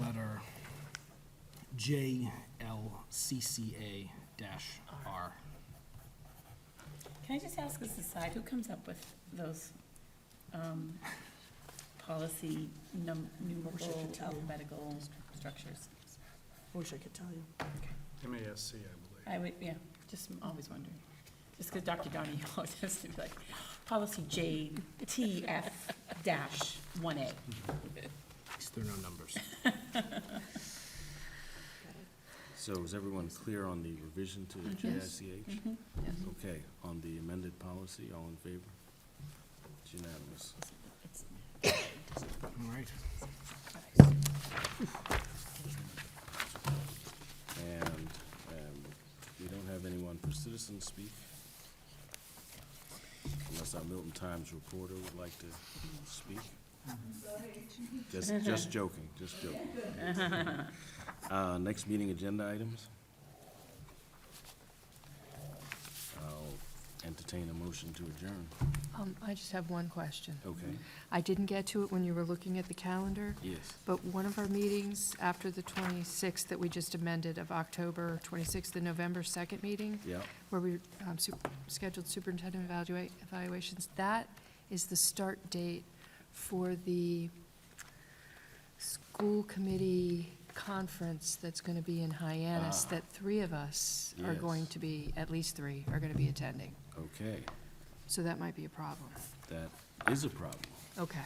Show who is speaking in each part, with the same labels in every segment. Speaker 1: letter JLCCA-R.
Speaker 2: Can I just ask as a side, who comes up with those um, policy num- numeral
Speaker 3: continue.
Speaker 2: alphabetical structures?
Speaker 3: Wish I could tell you.
Speaker 4: MASC, I believe.
Speaker 2: I would, yeah, just I'm always wondering. Just because Dr. Donahue always has to be like, policy JTF dash one A.
Speaker 1: At least there are no numbers.
Speaker 5: So is everyone clear on the revision to the
Speaker 2: Yes.
Speaker 5: JICH? Okay, on the amended policy, all in favor? It's unanimous.
Speaker 1: All right.
Speaker 5: And um, we don't have anyone for citizens speak. Unless our Milton Times reporter would like to speak. Just, just joking, just joking. Uh, Next meeting agenda items. I'll entertain a motion to adjourn.
Speaker 6: Um, I just have one question.
Speaker 5: Okay,
Speaker 6: I didn't get to it when you were looking at the calendar,
Speaker 5: yes.
Speaker 6: but one of our meetings after the 26th that we just amended of October 26th, the November 2nd meeting,
Speaker 5: Yeah,
Speaker 6: where we um, su- scheduled superintendent evaluate, evaluations, that is the start date for the school committee conference that's going to be in Hyannis,
Speaker 5: Ah.
Speaker 6: that three of us are
Speaker 5: Yes.
Speaker 6: going to be, at least three, are going to be attending.
Speaker 5: okay,
Speaker 6: So that might be a problem.
Speaker 5: that is a problem.
Speaker 6: Okay.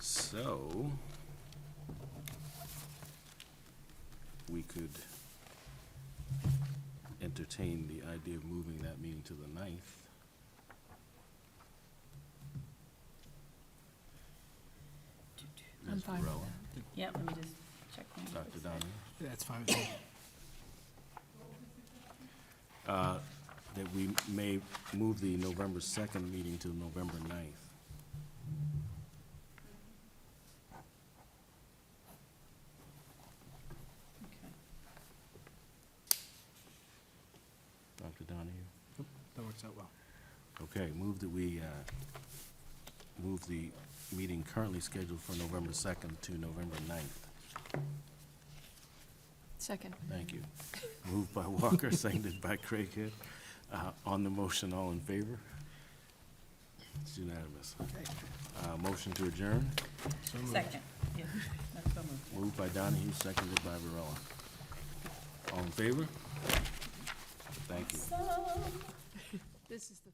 Speaker 5: So, we could entertain the idea of moving that meeting to the ninth.
Speaker 6: I'm
Speaker 5: Ms.
Speaker 6: fine with
Speaker 5: Varela,
Speaker 2: Yeah, let me just check. my-
Speaker 5: Dr. Donahue,
Speaker 1: That's fine with me.
Speaker 5: that we may move the November second meeting to November ninth.
Speaker 2: Okay.
Speaker 5: Dr. Donahue?
Speaker 1: That works out well.
Speaker 5: Okay, move that we, uh, move the meeting currently scheduled for November 2nd to November 9th.
Speaker 6: Second.
Speaker 5: Thank you. Moved by Walker, seconded by Craighead. Uh, On the motion, all in favor? It's unanimous. Uh, Motion to adjourn,
Speaker 2: Second, yeah, that's so moved.
Speaker 5: moved by Donahue, seconded by Varela. All in favor? Thank you.
Speaker 6: This is the.